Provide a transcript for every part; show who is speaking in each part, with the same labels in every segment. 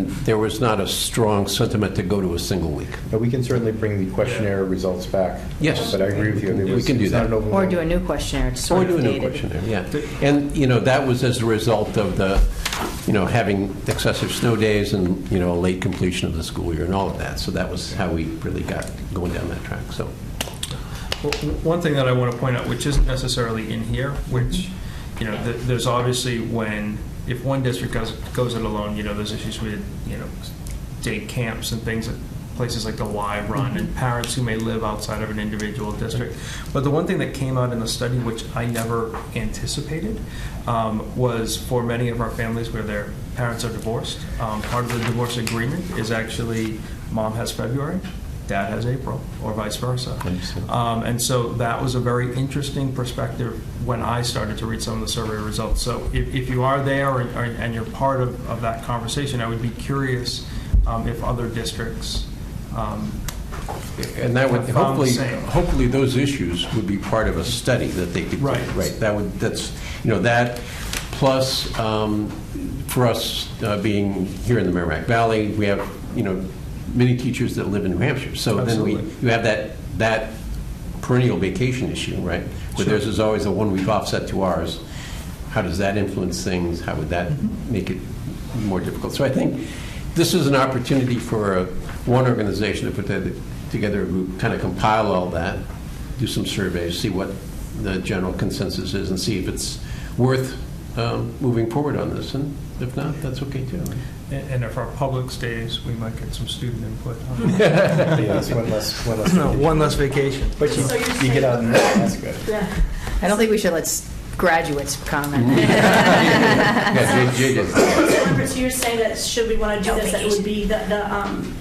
Speaker 1: there was not a strong sentiment to go to a single week.
Speaker 2: But we can certainly bring the questionnaire results back.
Speaker 1: Yes.
Speaker 2: But I agree with you. there
Speaker 1: We
Speaker 2: was-
Speaker 1: can do
Speaker 2: it's not
Speaker 1: that.
Speaker 2: an open
Speaker 3: Or
Speaker 2: vote.
Speaker 3: do a new questionnaire, it's
Speaker 1: Or
Speaker 3: sort
Speaker 1: do
Speaker 3: of
Speaker 1: a new
Speaker 3: dated.
Speaker 1: questionnaire, yeah. And, you know, that was as a result of the, you know, having excessive snow days and, you know, a late completion of the school year and all of that. So that was how we really got going down that track, so.
Speaker 4: Well, w- One thing that I want to point out, which isn't necessarily in here, which, you know, th- there's obviously when, if one district goes, goes it alone, you know, there's issues with, you know, day camps and things, at places like the Y Run, and parents who may live outside of an individual district. But the one thing that came out in the study, which I never anticipated, um, was for many of our families where their parents are divorced, um, part of the divorce agreement is actually, mom has February, dad has April, or vice versa.
Speaker 1: Understood.
Speaker 4: Um, and so that was a very interesting perspective when I started to read some of the survey results. So if, if you are there or, or- and you're part of, of that conversation, I would be curious um, if other districts. Um,
Speaker 1: And that would,
Speaker 4: Have found the
Speaker 1: hopefully,
Speaker 4: same.
Speaker 1: hopefully those issues would be part of a study that they could. do.
Speaker 4: Right.
Speaker 1: Right, that would, that's, you know, that, plus, um, for us uh, being here in the Merrimack Valley, we have, you know, many teachers that live in New Hampshire. So then we,
Speaker 4: Absolutely.
Speaker 1: you have that, that perennial vacation issue, right? Where
Speaker 4: Sure.
Speaker 1: theirs is always a one-week offset to ours. How does that influence things? How would that make it more difficult? So I think this is an opportunity for uh, one organization to put that- together a group, kind of compile all that, do some surveys, see what the general consensus is, and see if it's worth um, moving forward on this. And if not, that's okay, too.
Speaker 4: and and if our public stays, we might get some student input.
Speaker 2: Yeah, it's one less, one less.
Speaker 4: One less vacation.
Speaker 2: But you,
Speaker 3: So you're
Speaker 2: you get
Speaker 3: saying-
Speaker 2: out and that's good.
Speaker 3: I don't think we should let s- graduates comment.
Speaker 1: Yeah, Jay- Jay did.
Speaker 5: So Robert, so you're saying that should we want to do
Speaker 3: No
Speaker 5: this, that it would be the, the um,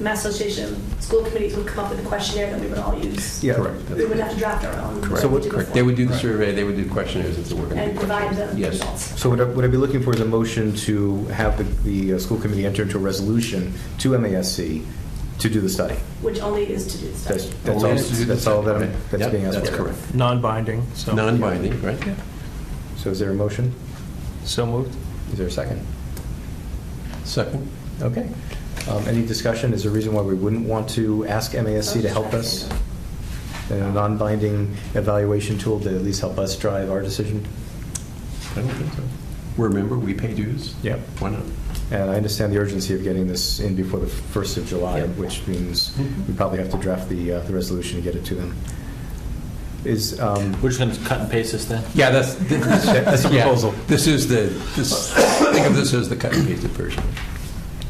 Speaker 5: Mass Association School Committees would come up with a questionnaire that we would all use?
Speaker 2: Yeah.
Speaker 1: Correct.
Speaker 5: We would have to draft our own.
Speaker 2: So what-
Speaker 1: Correct. They would do the survey, they would do questionnaires, it's a working group.
Speaker 5: And provide the
Speaker 1: Yes.
Speaker 5: results.
Speaker 2: So what I- what I'd be looking for is a motion to have the, the uh, school committee enter into a resolution to MASC to do the study.
Speaker 5: Which only is to do the
Speaker 2: That's,
Speaker 5: study.
Speaker 2: that's all,
Speaker 1: Only Oh, to do the
Speaker 2: that's all that
Speaker 1: study,
Speaker 2: I'm,
Speaker 1: right.
Speaker 2: that's
Speaker 1: Yep,
Speaker 2: being asked for.
Speaker 1: That's correct.
Speaker 4: Non-binding, so.
Speaker 1: Non-binding, right?
Speaker 2: So is there a motion?
Speaker 4: So moved.
Speaker 2: Is there a second?
Speaker 1: Second?
Speaker 2: Okay. Um, Any discussion? Is there a reason why we wouldn't want to ask MASC to help us? in A non-binding evaluation tool to at least help us drive our decision?
Speaker 1: I don't think so. Remember, we pay dues.
Speaker 2: Yep.
Speaker 1: Why not?
Speaker 2: And I understand the urgency of getting this in before the 1st of July,
Speaker 1: Yeah.
Speaker 2: which means
Speaker 1: Mhm.
Speaker 2: we probably have to draft the, uh, the resolution to get it to them. Is, um,
Speaker 6: We're just going to cut and paste this then?
Speaker 1: Yeah, that's.
Speaker 2: That's the proposal.
Speaker 1: This is the, this, think of this as the cut and pasted version.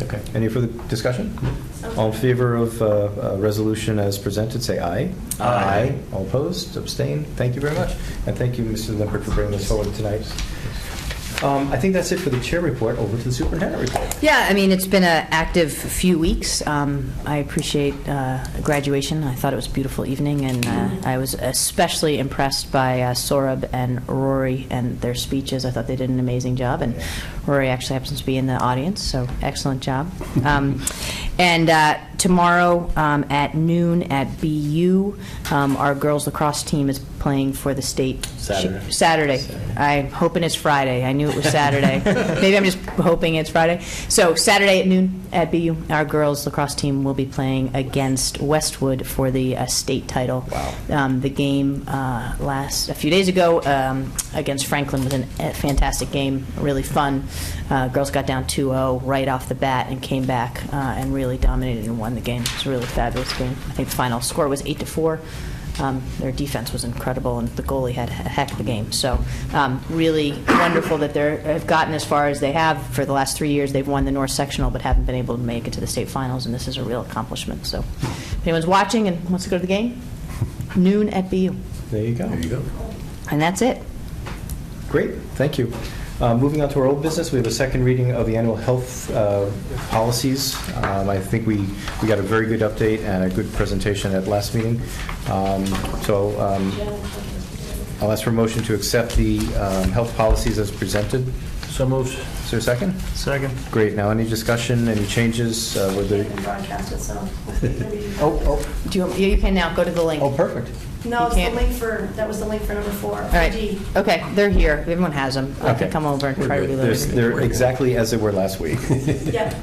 Speaker 2: okay, any further discussion?
Speaker 5: Sounds
Speaker 2: All in favor of uh, uh, resolution as presented, say aye.
Speaker 6: Aye.
Speaker 2: All opposed, abstain. Thank you very much. And thank you, Mr. Lippert, for bringing this forward tonight. Um, I think that's it for the chair report. Over to the superintendent report.
Speaker 3: Yeah, I mean, it's been an active few weeks. Um, I appreciate uh, graduation. I thought it was a beautiful evening, and uh, I was especially impressed by uh, Saurabh and Rory and their speeches. I thought they did an amazing job, and Rory actually happens to be in the audience, so excellent job. Um, and uh, tomorrow um, at noon at BU, um, our girls lacrosse team is playing for the state
Speaker 6: Saturday.
Speaker 3: Saturday.
Speaker 6: Saturday.
Speaker 3: I'm hoping it's Friday. I knew it was Saturday. Maybe I'm just hoping it's Friday. So Saturday at noon at BU, our girls lacrosse team will be playing against Westwood for the uh, state title. Wow. Um, the game uh, last a few days ago um, against Franklin was an- a fantastic game, really fun. Uh, girls got down 2-0 right off the bat and came back uh, and really dominated and won the game. It was a really fabulous game. I think the final score was eight to four. Um, their defense was incredible, and the goalie had a heck of a game. So, um, really wonderful that they have gotten as far as they have for the last three years. They've won the North Sectional, but haven't been able to make it to the state finals, and this is a real accomplishment. So, if anyone's watching and wants to go to the game, noon at BU,
Speaker 2: There you go.
Speaker 1: There you go.
Speaker 3: and that's it.
Speaker 2: Great, thank you. Uh, Moving on to our old business, we have a second reading of the annual health uh, policies. Um, I think we, we got a very good update and a good presentation at last meeting. Um, So um, I'll ask for a motion to accept the um, health policies as presented.
Speaker 6: So moved.
Speaker 2: Is there a second?
Speaker 4: Second.
Speaker 2: Great, now any discussion, any changes? uh, were there-
Speaker 5: And broadcast itself.
Speaker 2: Oh, oh,
Speaker 3: Do you, want- yeah, you can now go to the link.
Speaker 2: oh, perfect.
Speaker 5: No, it's the
Speaker 3: can't-
Speaker 5: link for, that was the link for number four.
Speaker 3: All right.
Speaker 5: D.
Speaker 3: Okay, they're here. Everyone has them. I
Speaker 2: Okay.
Speaker 3: can come over and try to
Speaker 1: We're good.
Speaker 3: reload.
Speaker 2: There's-
Speaker 3: it.
Speaker 2: They're exactly as they were last week.
Speaker 5: Yep.